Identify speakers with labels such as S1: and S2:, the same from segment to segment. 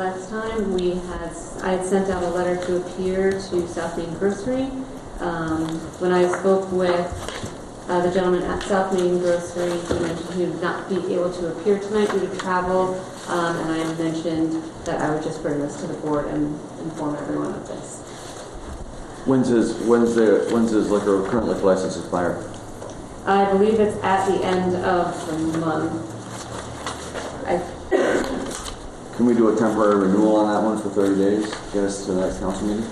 S1: Last time, we had, I had sent out a letter to appear to South Main Grocery. Um, When I spoke with uh, the gentleman at South Main Grocery, he mentioned he would not be able to appear tonight due to travel. Um, And I mentioned that I would just bring this to the board and inform everyone of this.
S2: When's his, when's the, when's his liquor, current liquor license expire?
S1: I believe it's at the end of the month. I
S2: Can we do a temporary renewal on that one for 30 days? Get us to the next council meeting?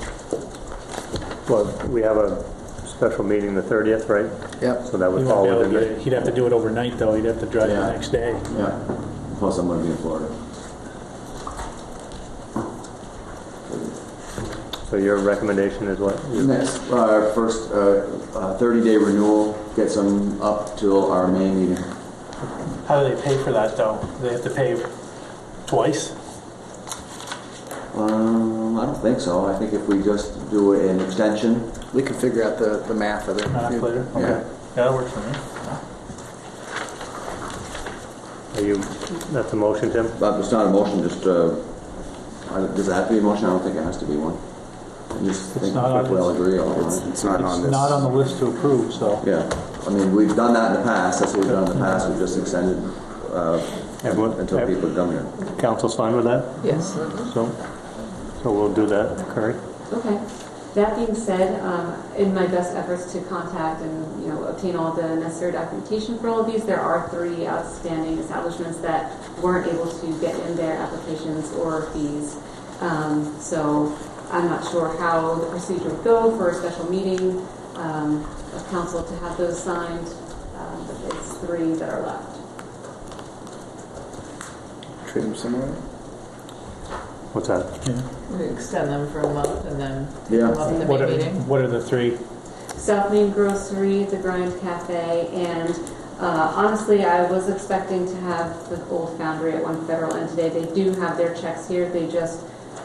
S3: Well, we have a special meeting the 30th, right?
S2: Yep.
S3: So that
S4: He
S3: would
S4: won't
S3: fall
S4: be able to
S3: within
S4: get
S3: the...
S4: it. He'd have to do it overnight, though. He'd have to drive
S2: Yeah.
S4: the next day.
S2: Yeah. Plus, I'm gonna be in Florida.
S3: So your recommendation is what?
S2: Next, uh, first, uh, uh, 30-day renewal gets them up till our May meeting.
S4: How do they pay for that, though? They have to pay twice?
S2: Um, I don't think so. I think if we just do an extension,
S5: We can figure out the, the math of it.
S4: Math later?
S2: Yeah.
S4: Okay. That'll work for me.
S3: Are you, that's a motion, Tim?
S2: but it's not a motion, just, uh, I- does it have to be a motion? I don't think it has to be one. I just think
S4: not on
S2: if we all
S4: this.
S2: agree, all right.
S5: It's not on
S4: It's not on
S5: this.
S4: the list to approve, so.
S2: Yeah, I mean, we've done that in the past, that's what we've done in the past, we've just extended uh,
S3: Everyone-
S2: until
S3: ev-
S2: people come here.
S3: Council's fine with that?
S1: Yes.
S3: So, so we'll do that, Curry?
S1: Okay. That being said, um, in my best efforts to contact and, you know, obtain all the necessary documentation for all of these, there are three outstanding establishments that weren't able to get in their applications or fees. Um, So I'm not sure how the procedure would go for a special meeting um, of council to have those signed, um, but it's three that are left.
S5: Treat them similarly?
S3: What's that?
S6: We extend them for a month and then take
S2: Yeah.
S6: them up in the
S4: What
S6: May
S4: are,
S6: meeting.
S4: what are the three?
S1: South Main Grocery, The Grind Cafe, and uh, honestly, I was expecting to have the Old Foundry at One Federal, and today they do have their checks here. They just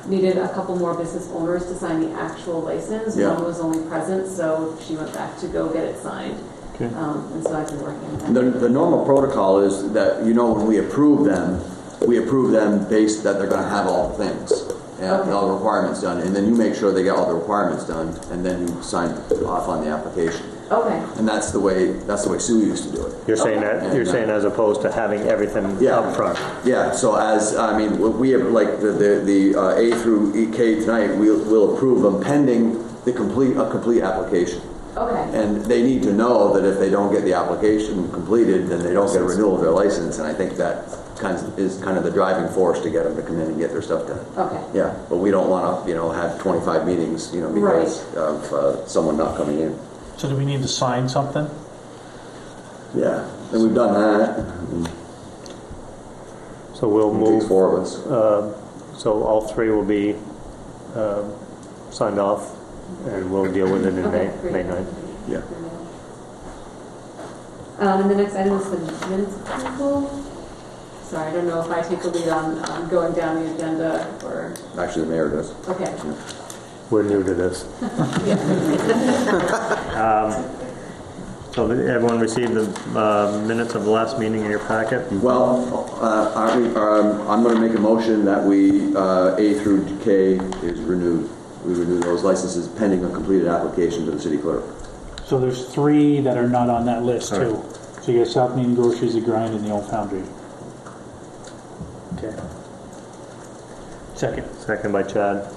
S1: needed a couple more business owners to sign the actual license.
S2: Yeah.
S1: One was only present, so she went back to go get it signed.
S4: Okay.
S1: Um, And so I've been working on
S2: The,
S1: that.
S2: the normal protocol is that, you know, when we approve them, we approve them based that they're gonna have all the things, and all the requirements done, and then you make sure they get all the requirements done, and then you sign off on the application.
S1: Okay,
S2: And that's the way, that's the way Sue used to do it.
S3: You're saying that, you're saying as opposed to having everything
S2: Yeah.
S3: up front.
S2: Yeah, so as, I mean, we- we have, like, the, the the uh, A through E K tonight, we'll, we'll approve them pending the complete, a complete application.
S1: okay,
S2: And they need to know that if they don't get the application completed, then they don't get a renewal of their license, and I think that kind of is kind of the driving force to get them to come in and get their stuff done.
S1: okay.
S2: Yeah, but we don't want to, you know, have 25 meetings, you know, because of uh, someone not coming in.
S4: So do we need to sign something?
S2: Yeah, and we've done that.
S3: So we'll
S2: It takes
S3: move,
S2: four of us.
S3: uh, so all three will be um, signed off, and we'll deal with it in
S1: Okay,
S3: May,
S1: great.
S3: May 9th.
S2: Yeah.
S1: Um, and the next item is the minutes approval. Sorry, I don't know if I take the lead on, on going down the agenda or,
S2: Actually, the mayor does.
S1: okay.
S3: We're new to this. Um, So did everyone received the uh, minutes of the last meeting in your packet?
S2: Well, uh, aren't we- um, I'm going to make a motion that we, uh, A through K is renewed. We renew those licenses pending a completed application to the city clerk.
S4: So there's three that are not on that list, too. So you got South Main Groceries, The Grind, and the Old Foundry. Okay. Second.
S3: Second by Chad.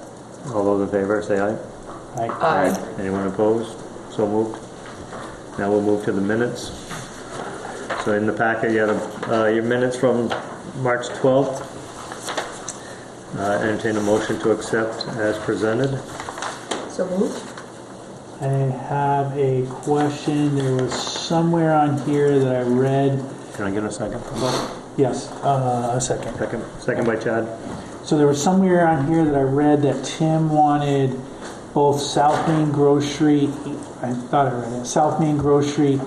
S3: All those in favor, say aye.
S4: Aye.
S6: Aye.
S3: Anyone opposed? So moved. Now we'll move to the minutes. So in the packet, you had uh, your minutes from March 12th. Uh, Entertain a motion to accept as presented.
S6: So moved?
S4: I have a question. There was somewhere on here that I read.
S3: Can I get a second?
S4: Yes, uh, a second.
S3: Second, second by Chad.
S4: So there was somewhere on here that I read that Tim wanted both South Main Grocery, I thought I read it, South Main Grocery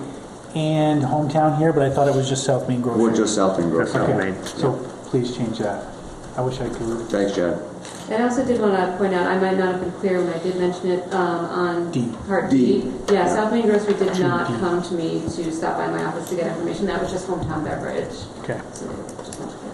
S4: and Hometown here, but I thought it was just South Main Grocery.
S2: We're just South Main Grove.
S3: Just South
S4: Okay,
S3: Main.
S4: So please change that. I wish I could.
S2: Thanks, Chad.
S1: And I also did want to point out, I might not have been clear when I did mention it um, on
S4: D.
S1: part
S2: D.
S1: D. Yeah, South Main Grocery did
S4: To
S1: not
S4: D.
S1: come to me to stop by my office to get information. That was just hometown beverage.
S4: Okay.
S1: So, just wanted to